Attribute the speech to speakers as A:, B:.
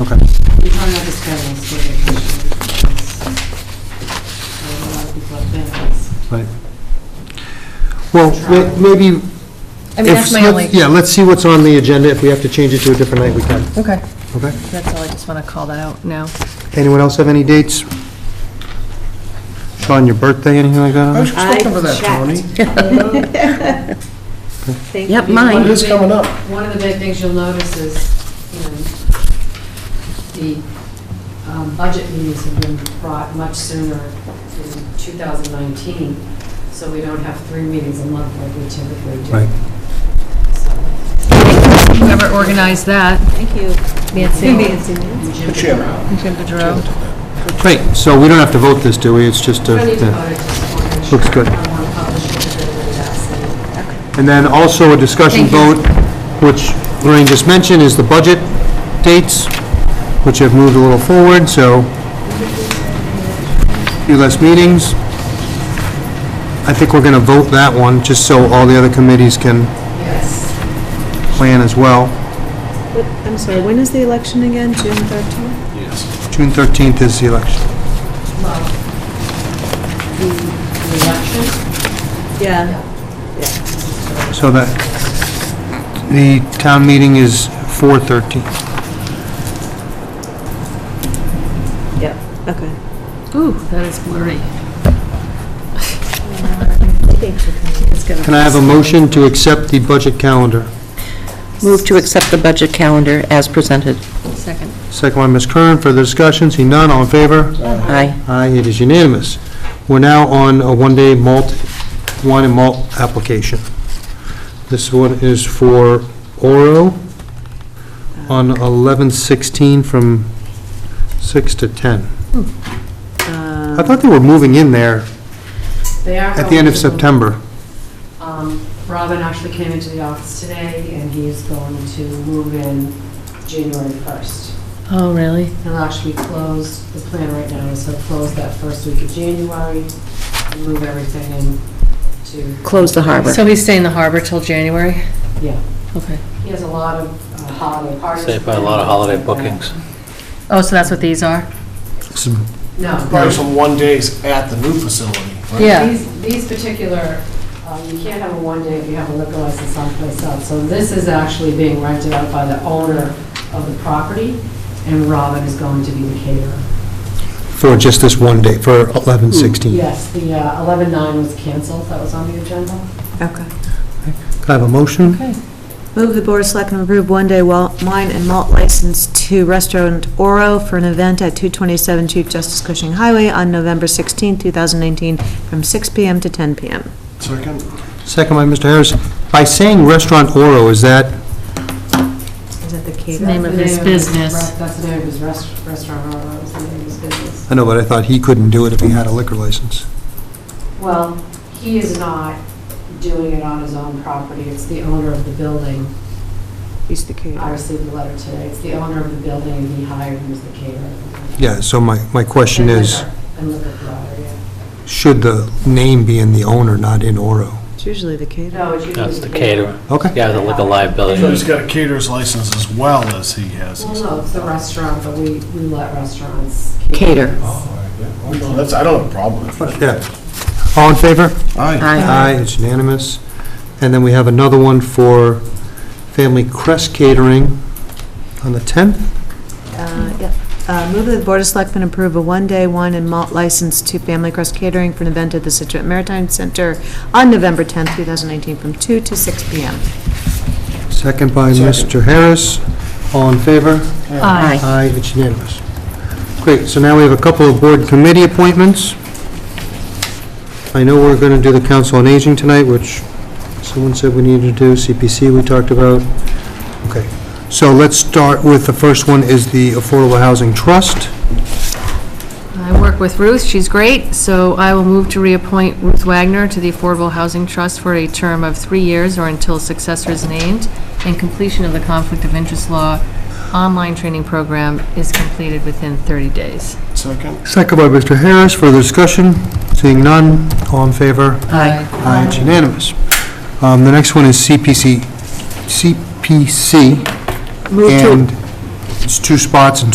A: Okay.
B: We probably have to schedule a state vacation because a lot of people have families.
A: Right. Well, ma- maybe...
C: I mean,
A: if-
C: that's my only,
A: Yeah, let's see what's on the agenda. If we have to change it to a different night, we can.
C: okay,
A: Okay?
C: that's all, I just want to call that out now.
A: Anyone else have any dates? Sean, your birthday, anything like that? on
D: Oh,
A: there?
B: I checked.
D: Yep, mine.
B: One of
A: It
B: the
A: is
B: big-
A: coming up.
B: One of the big things you'll notice is, you know, the um, budget meetings have been brought much sooner in 2019, so we don't have three meetings a month like we typically do.
A: Right.
B: So,
C: Whoever organized that,
D: Thank you. Nancy.
B: and Jim Farrow.
C: Jim Boudreau.
A: Great, so we don't have to vote this, do we? It's just a...
B: I need to vote it Um, just for action.
A: Looks good.
B: I want to publish it, but it's asking.
A: And then also a discussion vote, which Lorraine just mentioned, is the budget dates, which have moved a little forward, so few less meetings. I think we're going to vote that one, just so all the other committees can
B: Yes,
A: plan as well.
D: But, I'm sorry, when is the election again, June 13th?
A: June 13th is the election.
B: well, the the election,
D: Yeah.
A: So that, the town meeting is 4/13.
D: Yep. Okay.
C: Ooh, that is blurry.
A: Can I have a motion to accept the budget calendar?
E: Move to accept the budget calendar as presented.
C: Second.
A: Second one, Ms. Curran, further discussion, see none, all in favor?
E: Aye.
A: Aye, it is unanimous. We're now on a one-day malt, wine and malt application. This one is for Oro on 11/16 from 6 to 10. I thought they were moving in there
B: Um, they are.
A: at the end of
B: going to-
A: September.
B: Um, Robin actually came into the office today, and he is going to move in January 1st.
C: Oh, really?
B: He'll actually close, the plan right now is he'll close that first week of January, and move everything in to...
E: Close the harbor.
C: So he's staying in the harbor till January?
B: Yeah.
C: Okay.
B: He has a lot of uh, holiday parties.
F: Saved by a lot of holiday bookings.
C: Oh, so that's what these are?
A: Some-
B: No.
G: Probably some one days at the new facility, right?
C: Yeah.
B: These, these particular, uh, you can't have a one day if you have a liquor license someplace else. So this is actually being rented out by the owner of the property, and Robin is going to be the caterer.
A: For just this one day, for 11/16.
B: Yes, the uh, 11-9 was canceled, that was on the agenda.
D: Okay.
A: Can I have a motion?
D: Move the Board of Selectmen approve one-day wa- wine and malt license to Restaurant Oro for an event at 227 Chief Justice Cushing Highway on November 16th, 2019, from 6 PM to 10 PM.
G: Second,
A: Second by Mr. Harris. By saying Restaurant Oro, is that,
D: Is that the
C: The name
D: caterer?
C: of
B: That's
C: his
B: the
C: business.
B: rest- That's the name of his rest- restaurant, or that's the name of his business.
A: I know, but I thought he couldn't do it if he had a liquor license.
B: Well, he is not doing it on his own property, it's the owner of the building.
D: He's the
B: I
D: caterer.
B: received the letter today, it's the owner of the building, and he hired him as the caterer.
A: Yeah, so my, my question
B: And
A: is,
B: liquor- And liquor provider, yeah.
A: should the name be in the owner, not in Oro?
D: It's usually the caterer.
B: No, it's usually.
F: That's the caterer.
A: Okay.
F: Yeah, the liquor
G: so he's
F: liability.
G: got a caterer's license as well as he has
B: Well,
G: his.
B: no, it's the restaurant, but we, we let restaurants.
E: Cater.
G: No, That's, I don't have a problem with that.
A: Yeah. All in favor?
G: Aye.
E: Aye.
A: Aye, it's unanimous. And then we have another one for Family Crest Catering on the 10th.
D: Uh, yep. Uh, Move that the Board of Selectmen approve a one-day wine and malt license to Family Crest Catering for an event at the Situate Maritime Center on November 10th, 2019, from 2 to 6 p.m.
A: Second by Mr. Harris. All in favor?
C: Aye.
A: Aye, it's unanimous. Great, so now we have a couple of board committee appointments. I know we're going to do the Council on Aging tonight, which someone said we needed to do, CPC we talked about. Okay, so let's start with, the first one is the Affordable Housing Trust.
C: I work with Ruth, she's great, so I will move to reappoint Ruth Wagner to the Affordable Housing Trust for a term of three years or until a successor is named and completion of the Conflict of Interest Law online training program is completed within 30 days.
G: Second,
A: Second by Mr. Harris, further discussion? Seeing none, all in favor?
C: Aye.
A: Aye, it's unanimous. Um, The next one is CPC, CPC,
E: Move to,
A: and It's two spots and